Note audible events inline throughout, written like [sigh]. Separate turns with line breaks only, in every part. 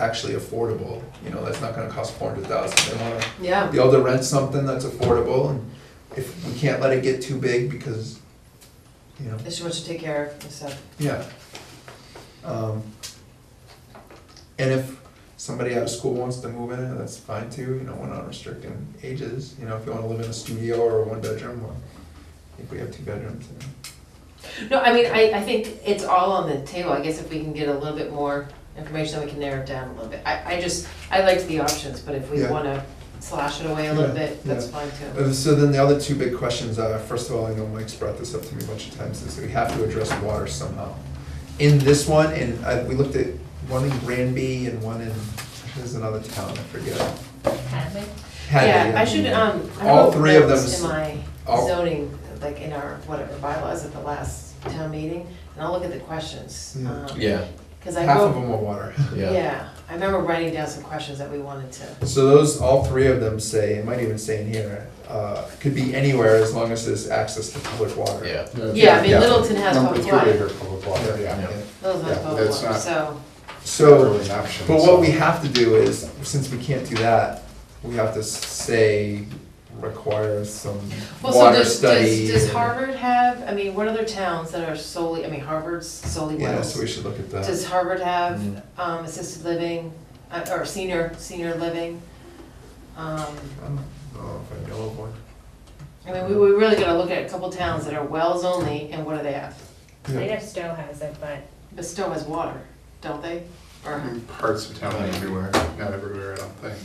actually affordable, you know, that's not gonna cost four hundred thousand, they wanna
Yeah,
be able to rent something that's affordable, and if, we can't let it get too big, because, you know,
there's too much to take care of and stuff.
yeah. Um, And if somebody out of school wants to move in, that's fine too, you know, we're not restricting ages, you know, if you wanna live in a studio or a one bedroom, well, I think we have two bedrooms, you know.
No, I mean, I, I think it's all on the table, I guess if we can get a little bit more information, then we can narrow it down a little bit. I, I just, I liked the options, but if we
Yeah.
wanna slash it away a little
Yeah,
bit, that's
yeah.
fine too.
Uh, So then the other two big questions are, first of all, I know Mike's brought this up to me a bunch of times, is that we have to address water somehow. In this one, and I, we looked at one in Granby and one in, there's another town, I forget.
Hadley?
Had
Yeah,
they,
I should, um, I
All
wrote
three of
notes in
them
my
all-
zoning, like in our, whatever bylaws at the last town meeting, and I'll look at the questions.
Yeah.
um,
Yeah,
Cause I
Half of
wrote,
them were water.
yeah.
yeah, I remember writing down some questions that we wanted to,
So those, all three of them say, it might even say in here, uh, could be anywhere as long as there's access to public water.
Yeah,
yeah, I mean, Littleton has public
Number
water,
three here, public
Yeah,
water,
yeah,
yeah.
yeah.
Littleton has
Yeah,
public
that's
water,
not-
so,
So.
Really an option,
But what we
so-
have to do is, since we can't do that, we have to say require some
well, so
water
does,
study.
does, does Harvard have, I mean, what other towns that are solely, I mean, Harvard's solely
Yeah,
wells?
so we uh, Mm-hmm. should look at that.
Does Harvard have,
Mm.
um, assisted living, uh, or senior, senior living? Um,
I don't know if I know of one.
I mean, we, we really gotta look at a couple towns that are wells only, and what do they have?
I know Stowe has it, but
But Stowe has water, don't they? Or,
Parts of town, not everywhere, not everywhere, I don't think.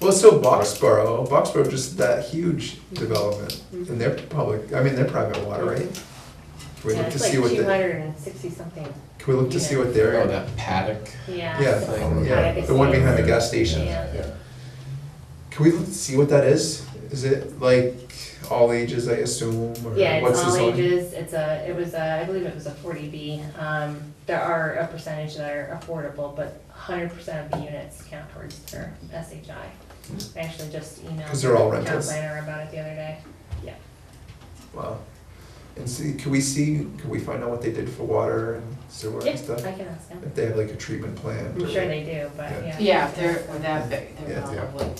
Well, so Boxborough, Boxborough just that huge development, and they're public, I mean, they're private water, right? Can we
yeah,
look to
it's like
see what they,
two hundred and sixty something,
can we look to see what
Oh,
they're,
that paddock.
Yeah,
yeah. it's-
thing,
yeah, the one behind the gas station.
Yeah.
Yeah.
Can we look- see what that is? Is it like all ages, I assume, or
Yeah, it's
what's the
all
zoning?
ages, it's a, it was a, I believe it was a forty B, um, there are a percentage that are affordable, but hundred percent of the units count towards their SHI. I actually just emailed.
'Cause Hmm. they're all
the Town
rentals.
planner about it the other day,
Wow. And see, can we see, can we find out what they did for water and sewer and
yeah,
stuff?
I can ask them,
If they have like a treatment plant?
I'm
or-
sure they do, but
Yeah.
yeah.
yeah, if they're, or that big, they're
Yeah,
yeah.
probably.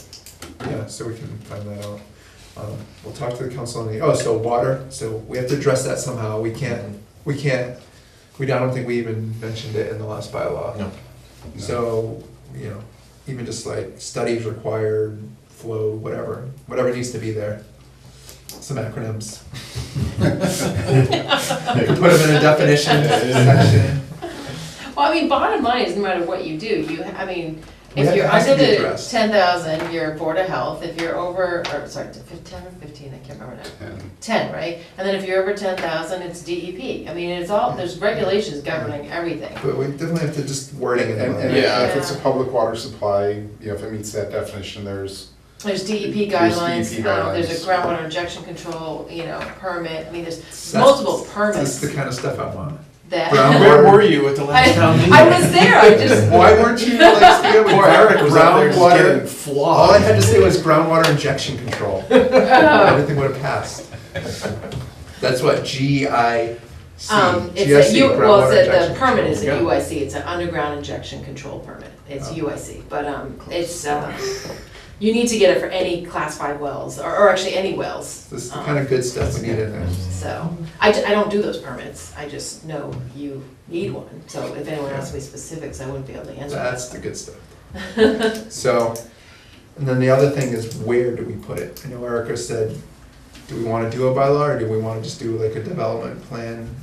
Yeah, so we can find that out. Um, we'll talk to the council on the, oh, so water, so we have to address that somehow. We can't, we can't, we, I don't think we even mentioned it in the last bylaw.
No.
So, you know, even just like studies required, flow, whatever, whatever needs to be there. Some acronyms. You can put them in a definition section.
Well, I mean, bottom line is, no matter what you do, you, I mean,
We
if
have-
you're
it has to
under
be
the
addressed.
ten thousand, you're Board of Health, if you're over, or sorry, fif- ten or fifteen, I can't remember now.
And
Ten, right? And then if you're over ten thousand, it's DEP. I mean, it's all, there's regulations governing everything.
But we definitely have to just wording it. in
and-
line.
and
Yeah.
if it's a public water supply, you know, if it meets that definition, there's,
There's DEP
E
There's
guidelines,
DEP
um, there's a
guidelines.
groundwater injection control, you know, permit, I mean, there's
That's-
multiple
That's
permits
the kind of stuff I want.
that.
Brown-
Where were you at the last
[laughs]
town
I,
meeting?
I was there, I just,
Why weren't you like speaking
[laughs]
with
Poor [laughs] Eric
Eric
was out there just getting
groundwater? All I
flogged.
had to say was groundwater injection
[laughs]
control.
oh,
Everything would have passed. That's what G I C.
um, it's a,
GIC,
U- well,
groundwater
it's a,
injection
the permit
control.
is a
Yeah.
UIC, it's an underground injection control permit, it's
Oh.
UIC, but, um, it's, uh, you need to get it for any class five wells, or, or actually any wells, um,
This is the kind of good stuff we need in there.
so. I, ju- I don't do those permits, I just know you need one, so if anyone asked me specifics, I wouldn't be able to answer that.
That's the good stuff.
[laughs]
So, and then the other thing is where do we put it? I know Erica said, do we wanna do a bylaw or do we wanna just do like a development plan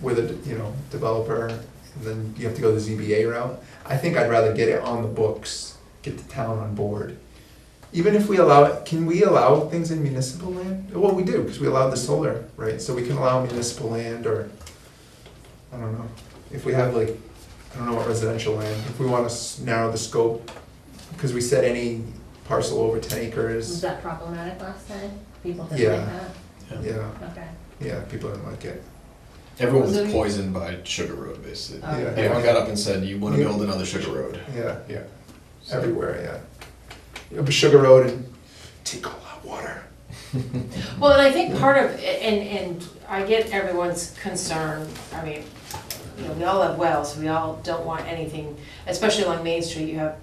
with a, you know, developer? And then you have to go the ZBA route. I think I'd rather get it on the books, get the town on board. Even if we allow it, can we allow things in municipal land? Well, we do, cause we allow the solar, right? So we can allow municipal land or, I don't know, if we have like, I don't know what residential land, if we wanna s- narrow the scope, cause we said any parcel over ten
Was
acres,
that problematic last time? People didn't like that?
yeah,
Okay.
yeah, people didn't like it.
Everyone
Was
was
it-
poisoned by Sugar Road, basically.
Oh.
Yeah.
Everyone got up and said, you wanna build another Sugar Road.
Yeah,
yeah.
So-
everywhere, yeah. Yeah, but Sugar Road and take all that water.
Well, and I think part of, and, and I get everyone's concern, I mean, you know, we all have wells, we all don't want anything, especially along Main Street, you have